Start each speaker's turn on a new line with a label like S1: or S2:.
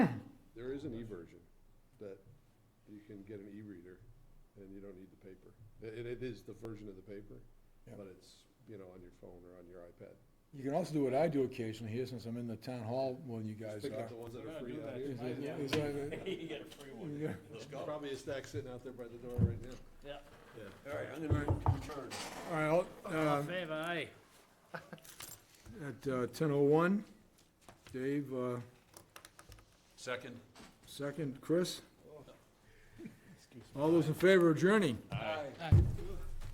S1: is an e-version that you can get an e-reader and you don't need the paper. It, it is the version of the paper,
S2: Yeah.
S1: but it's, you know, on your phone or on your iPad.
S2: You can also do what I do occasionally here, since I'm in the town hall when you guys
S1: Just pick up
S2: are.
S1: the ones that
S3: We're
S1: are
S3: gonna
S1: free
S3: do
S1: out
S3: that
S1: here.
S2: Is it-
S3: Yeah.
S2: is that-
S3: You get a free one.
S2: yeah.
S3: Let's
S1: There's Probably a stack sitting out there by the door right now.
S3: Yeah.
S1: Yeah.
S4: All right, I'm gonna return.
S2: All right, I'll,
S3: All in
S2: um,
S3: favor, aye.
S2: at uh, 10:01, Dave, uh,
S4: Second.
S2: second, Chris. All those in favor of adjourning?
S4: Aye.
S3: Aye.